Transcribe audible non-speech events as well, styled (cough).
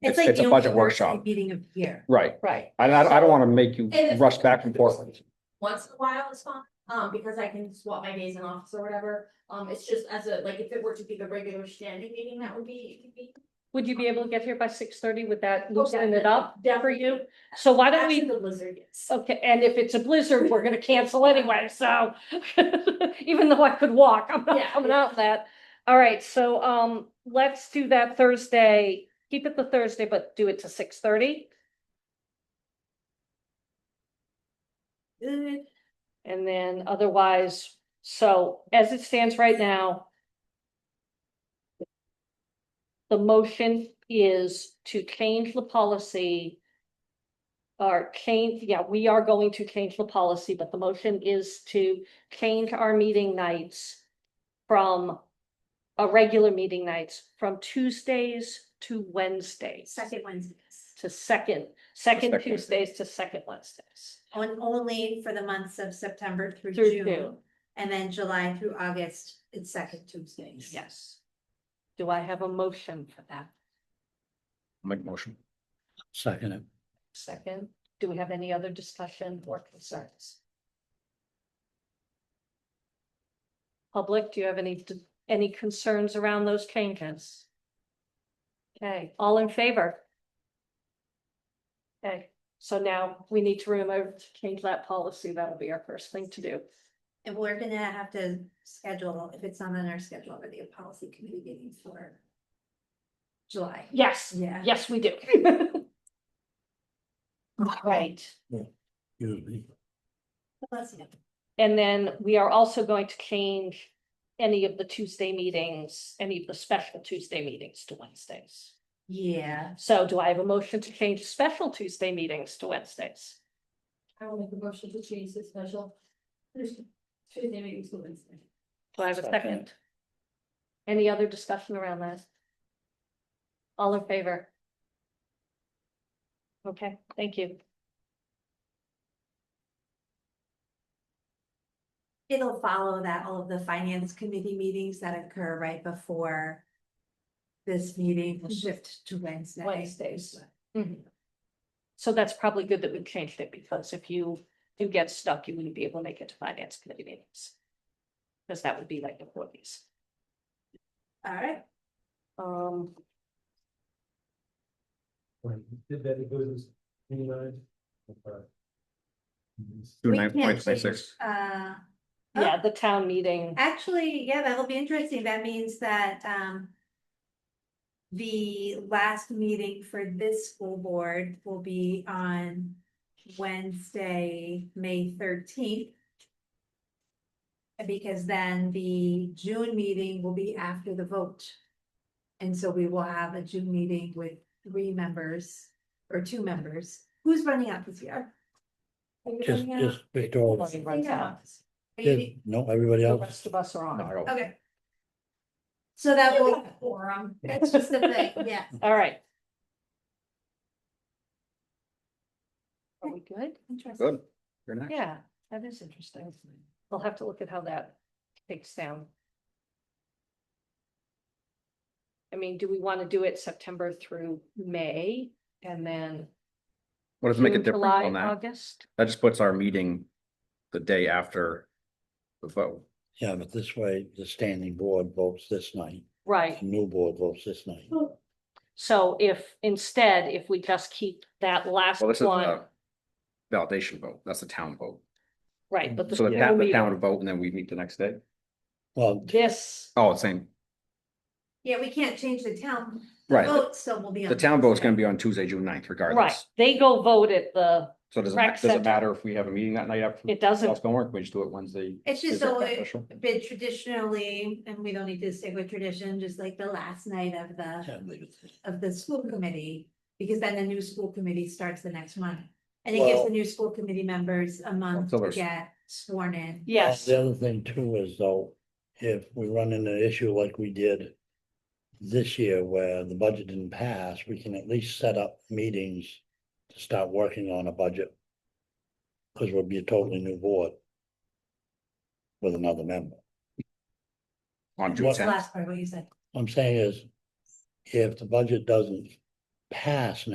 It's It's like it's a the budget only workshop, Meeting of the year. right? Right. And I, I don't want to make you And- rush back and forth. Once in a while it's fine, um, because I can swap my days in office or whatever, um, it's just as a, like, if it were to be the regular standing meeting, that would be, it could be. Would you be able to get here by six thirty? Would that Oh, loosen it definitely, up for definitely. you? So why don't Actually, we, the lizard, yes. oh. okay, and if it's a blizzard, we're gonna cancel anyway, so. (laughs) Even though I could walk, I'm Yeah. not coming out that. All right, so um, let's do that Thursday. Keep it the Thursday, but do it to six thirty. Uh, And then otherwise, so as it stands right now. The motion is to change the policy. Or change, yeah, we are going to change the policy, but the motion is to change our meeting nights. From our regular meeting nights from Tuesdays to Wednesdays. Second Wednesdays, To second, second Second. Tuesdays to second Wednesdays. on only for the months of September through Through June. June. And then July through August, it's second Tuesdays. Yes. Do I have a motion for that? Make motion. Second it. Second, do we have any other discussion or concerns? Public, do you have any, any concerns around those changes? Okay, all in favor? Okay, so now we need to remember to change that policy. That'll be our first thing to do. And we're gonna have to schedule, if it's not on our schedule, already a policy committee meeting for July. Yes, Yeah. yes, we do. (laughs) Right. Excuse me. Bless you. And then we are also going to change any of the Tuesday meetings, any of the special Tuesday meetings to Wednesdays. Yeah, So do I have a motion to change special Tuesday meetings to Wednesdays? I will make a motion to change the special. Tuesday meeting to Wednesday. Do I have a second? Any other discussion around that? All in favor? Okay, thank you. it'll follow that, all of the finance committee meetings that occur right before this meeting will shift to Wednesday. Mm-hmm. Wednesdays. Mm-hmm. So that's probably good that we changed it because if you do get stuck, you wouldn't be able to make it to finance committee meetings. Because that would be like the forties. All right, Um, Did that, it goes uh, as anybody? Do We nine point can't five six. uh, yeah, the town meeting, Actually, yeah, that'll be interesting. That means that, um. The last meeting for this school board will be on Wednesday, May thirteenth. Because then the June meeting will be after the vote. And so we will have a June meeting with three members or two members. Who's running out this year? Are you Just, running out? just Victoria. Everybody I think runs I'm out. out. Are you- Yeah, No, everybody the else. rest of us are No, I on. don't. Okay. So that will, Forum. that's just the thing, yeah. (laughs) All right. Are we good? Interesting. Good. You're next. Yeah, that is interesting. We'll have to look at how that takes down. I mean, do we want to do it September through May and then? What does it make a June, difference July, on that? August? That just puts our meeting the day after the vote. Yeah, but this way, the standing board votes this night, Right. the new board votes this night. So if instead, if we just keep that last Well, this is uh, one, a validation vote. That's a town vote. right, but the. So the school town, the meeting- town would vote and then we meet the next day. Well, This, Oh, same, Yeah, we can't change the town right. vote, so we'll be. The town vote's gonna be on Tuesday, June 9th, Oh, right, regardless. they go vote at the, So does it, Rec does it center. matter if we have a meeting that night after? it doesn't, That's gonna work. We just do it Wednesday. It's Is just that always beneficial? been traditionally, and we don't need to stick with tradition, just like the last night of the, yeah, leave it. of the school committee. Because then the new school committee starts the next month, and it gives Well- the new school committee members a month Until to there's- get sworn in. yes, The other thing too is though, if we run into an issue like we did this year where the budget didn't pass, we can at least set up meetings to start working on a budget. Cause we'll be a totally new board with another member. On June What- The 10th. Last part, what you said, What I'm saying is, if the budget doesn't pass